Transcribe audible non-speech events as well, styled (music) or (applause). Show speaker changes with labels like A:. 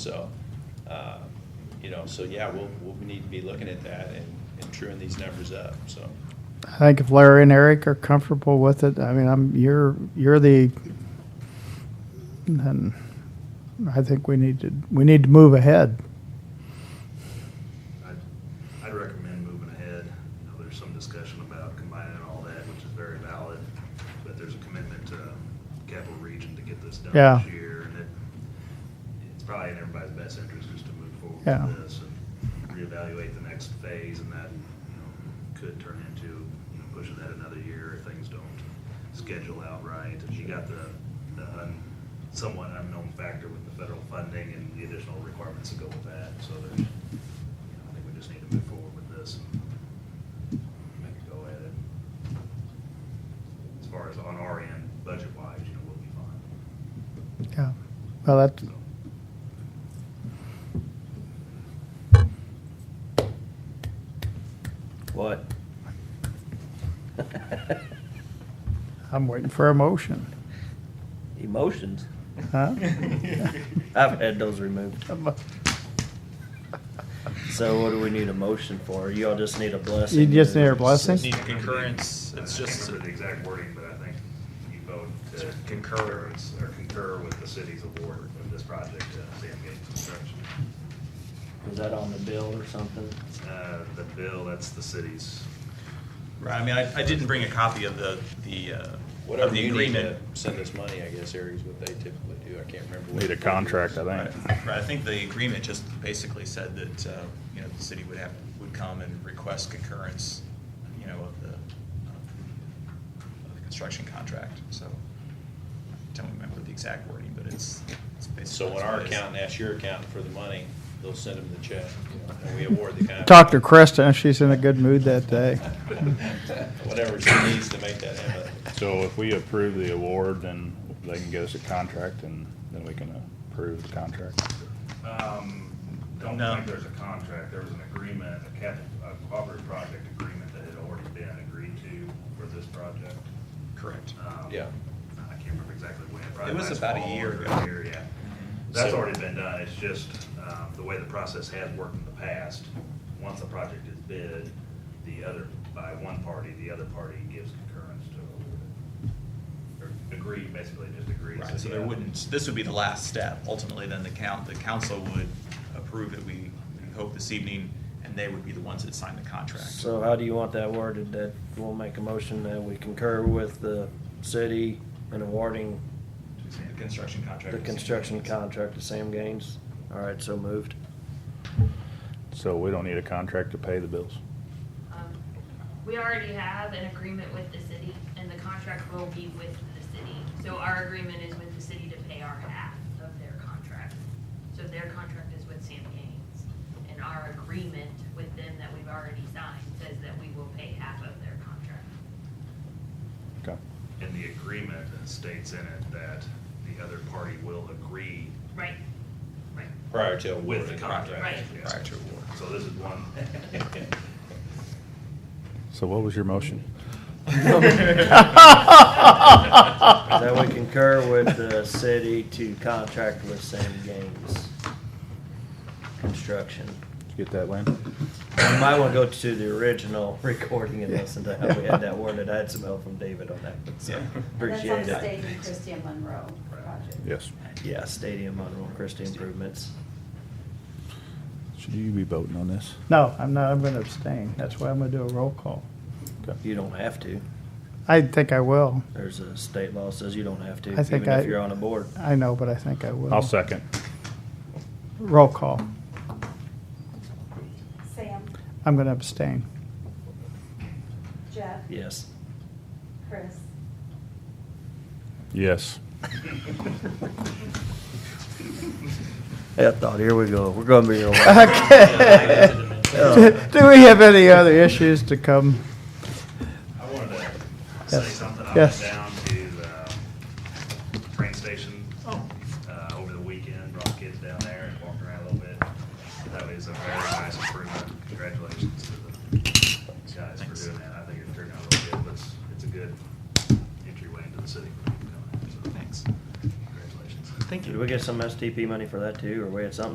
A: So, uh, you know, so yeah, we'll, we'll need to be looking at that and, and truing these numbers up, so.
B: I think if Larry and Eric are comfortable with it, I mean, I'm, you're, you're the, then I think we need to, we need to move ahead.
C: I'd, I'd recommend moving ahead. You know, there's some discussion about combining all that, which is very valid, but there's a commitment to Capital Region to get this done
B: Yeah.
C: this year, and it, it's probably in everybody's best interest just to move forward
B: Yeah.
C: with this and reevaluate the next phase, and that, you know, could turn into, you know, pushing that another year if things don't schedule out right. And you got the, the un- somewhat unknown factor with the federal funding and the additional requirements that go with that, so there's, you know, I think we just need to move forward with this and make a go at it. As far as on our end, budget-wise, you know, we'll be fine.
B: Yeah. Well, that,
C: So,
D: What?
B: I'm waiting for a motion.
D: Emotions.
B: Huh?
D: I've had those removed. So what do we need a motion for? You all just need a blessing?
B: You just need a blessing?
E: Need concurrence, it's
C: I can't
E: just,
C: remember the exact wording, but I think you vote to concur, or concur with the city's award of this project to Sam Gates Construction.
D: Was that on the bill or something?
C: Uh, The bill, that's the city's,
E: right, I mean, I, I didn't bring a copy of the, the, uh, of
A: Whatever
E: the
A: you need to
E: agreement.
A: send us money, I guess, Eric, is what they typically do, I can't remember. what
F: Need a
A: it is.
F: contract, I
E: Right,
F: think.
E: right, I think the agreement just basically said that, uh, you know, the city would have, would come and request concurrence, you know, of the, of the construction contract, so. Don't remember the exact wording, but it's, it's basically.
A: So when our
E: what it is.
A: accountant asks your accountant for the money, they'll send them the check, you know, and we award the contract.
B: Talked to Krista, she's in a good mood that day.
A: (laughs) Whatever she needs to make that happen.
F: So if we approve the award, then they can get us a contract and then we can approve the contract.
C: um, don't
E: No.
C: think there's a contract, there was an agreement, a capital, a cooperative project agreement that had already been agreed to for this project.
E: Correct.
C: Um,
A: Yeah.
C: I can't remember exactly when. probably
E: It was
C: last
E: about a
C: fall
E: year
C: or
E: ago.
C: earlier, Yeah. That's
A: So-
C: already been done, it's just, um, the way the process has worked in the past, once a project is bid, the other, by one party, the other party gives concurrence to, award it. or agree, basically just agrees.
E: Right,
C: that
E: so
C: the
E: there
C: other-
E: wouldn't, this would be the last step. Ultimately, then the count, the council would approve it, we we hope this evening, and they would be the ones that sign the contract.
D: So how do you want that worded? That we'll make a motion that we concur with the city in awarding
E: The construction contract.
D: the construction contract to Sam Gaines? All right, so moved.
F: So we don't need a contract to pay the bills.
G: Um, We already have an agreement with the city, and the contract will be with the city. So our agreement is with the city to pay our half of their contract. So their contract is with Sam Gaines. And our agreement with them that we've already signed says that we will pay half of their contract.
F: Okay.
C: And the agreement states in it that the other party will agree
G: Right, right,
A: Prior to award.
C: with the contract.
G: Right.
C: yeah.
E: Prior to award.
C: So this is one,
E: (laughs)
A: (laughs)
F: So what was your motion?
D: That we concur with the city to contract with Sam Gaines Construction.
F: Did you get that, Lynn?
D: You might want to go to the original recording and listen to how we had that worded. I had some help from David on that, but so
E: Yeah.
D: appreciate
H: That's on
D: it.
H: Stadium Christian Monroe project.
F: Yes.
D: Yeah, Stadium Monroe Christie improvements.
F: Should you be voting on this?
B: No, I'm not, I'm gonna abstain. That's why I'm gonna do a roll call.
D: You don't have to.
B: I think I will.
D: There's a state law says you don't have to,
B: I think
D: even
B: I-
D: if you're on a board.
B: I know, but I think I will.
F: I'll second.
B: Roll call.
H: Sam,
B: I'm gonna abstain. (laughs)
H: Jeff,
D: Yes.
H: Chris,
F: Yes.
D: I thought, here we go. We're gonna be here a
B: (laughs)
D: while.
B: Okay. (laughs)
D: (laughs)
B: Do we have any other issues to come?
C: I wanted to say
B: Yes.
C: something. I
B: Yes.
C: went down to the train station
E: Oh.
C: uh, over the weekend, brought the kids down there and walked around a little bit. That was a very nice improvement. Congratulations to the guys for
E: Thanks.
C: doing that. I think it turned out real good. but It's, it's a good entryway into the city for people down there, so
E: Thanks.
C: congratulations.
E: Thank
D: Did we get some STP money for that too, or we had something